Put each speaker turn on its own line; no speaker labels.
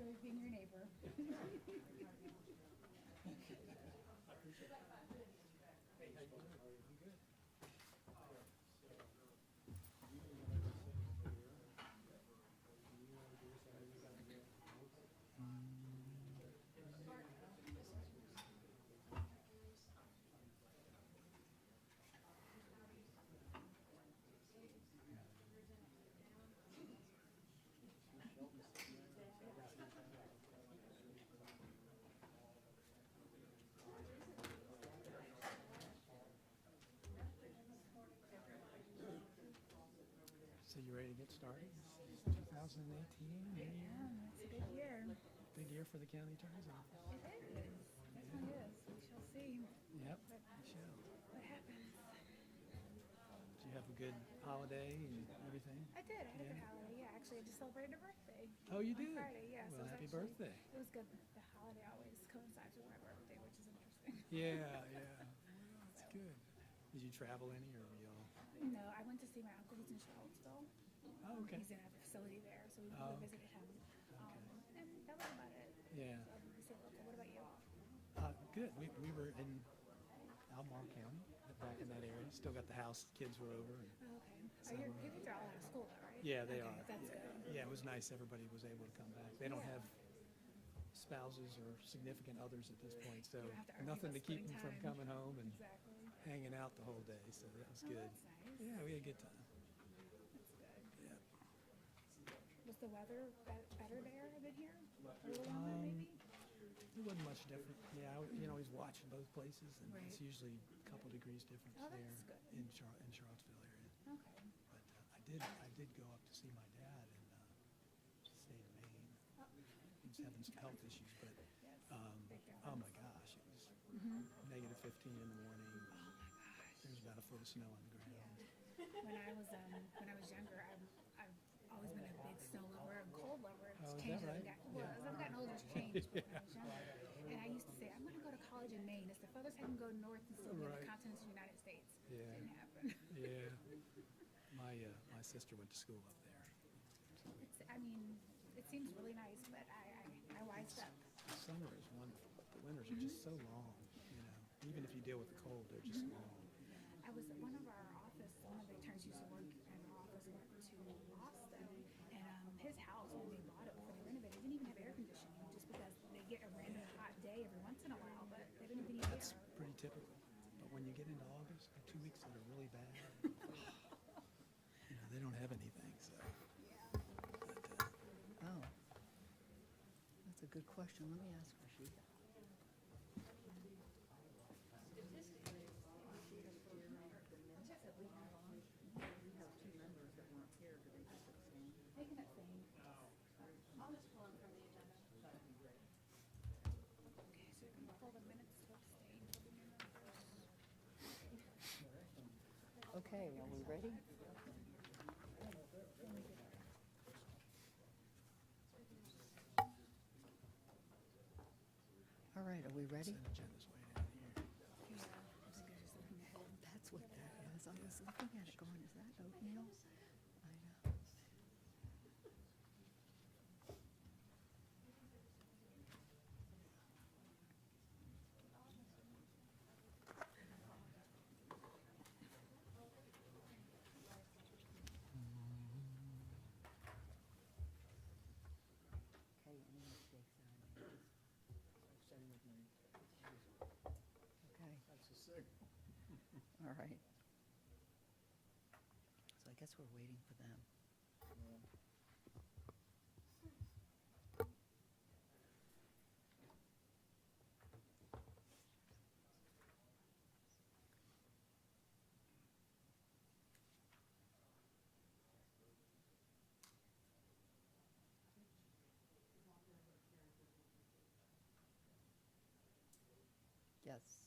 always being your neighbor.
So you ready to get started? It's 2018, new year,
Um, It's a good year.
big year for the county attorney's office.
It is. Yes, it is. We shall see
Yep, we shall.
what happens.
Did you have a good holiday and everything?
I did. I had a good
Yeah.
holiday. Yeah, actually, I just celebrated a birthday.
Oh, you
on
did?
Friday, yes. it
Well,
was
happy
actually-
birthday.
It was good. The holiday always coincides with my birthday, which is interesting.
Yeah, yeah. That's good. Did you travel any or were you all?
No, I went to see my uncle. He's in Charlottesville.
Oh, okay.
He's in a facility there, so we we
Oh, okay.
visited him. Um, and that was about it.
Yeah.
So I didn't say local. What about you?
Uh, good. We, we were in Albemarle County, back in that area. Still got the house, kids were over. and-
Oh, Okay. Are your, your kids are all out of school, though, right?
Yeah, they
Okay,
are.
That's
yeah.
good.
Yeah, it was nice. Everybody was able to come back. They don't
Yeah.
have spouses or significant others at this point, so
don't have to argue
nothing to
about
keep them
splitting
from
time.
coming home and
Exactly.
hanging out the whole day. So that was
Oh,
good.
that's nice.
Yeah, we had a good time.
That's good.
Yeah.
Was the weather be- better there than here? A little
Um,
warmer, maybe?
It wasn't much different. Yeah, I w- you know, he's watching both places, and it's
Right.
usually a couple degrees difference
Oh,
there
that's good.
in Char- in Charlottesville area.
Okay.
But uh, I did, I did go up to see my dad in uh, state of Maine.
Oh,
He was having some health issues, but,
yes.
um,
Big difference.
oh my gosh, it was negative fifteen in the morning. There was about a foot of snow on the ground.
Yeah. When I was, um, when I was younger, I've, I've always been a big snow lover and cold lover. It's
Oh, is
changed
that
as I've
right?
got- Well,
Yeah.
as I've gotten older, it's changed, but when I was younger. And I used to say, I'm gonna go to college in Maine. It's the furthest I can go north and still be on the
Right.
continent of the United States.
Yeah.
Didn't happen.
Yeah. My, uh, my sister went to school up there.
It's, I mean, it seems really nice, but I, I, I wised up.
The summer is wonderful, but the winters are just so long, you know. Even if you deal with the cold, they're just long.
I was at one of our office, one of the interns used to work in our office, went to Boston, and um, his house, when they bought it before they renovated, it didn't even have air conditioning, just because they get a random hot day every once in a while, but they didn't have any
That's
air.
pretty typical. But when you get into August, the two weeks that are really bad, you know, they don't have anything, so. But, uh,
Oh, that's a good question. Let me ask Rashida. Statistically, if you just go over the minutes that we have on, we have two members that weren't here, do they just abstain?
They can abstain.
I'll just pull them from the agenda.
That'd be great.
Okay, so you can pull the minutes to abstain.
Okay, are we ready? All right, are we ready?
consent agenda's way down here.
Yeah, I think I just looking ahead.
That's what that is. I was looking at it going, is that oatmeal? I know. Okay, any mistakes I made?
Same with me.
Okay.
That's a sick.
All right. So I guess we're waiting for them. Yes.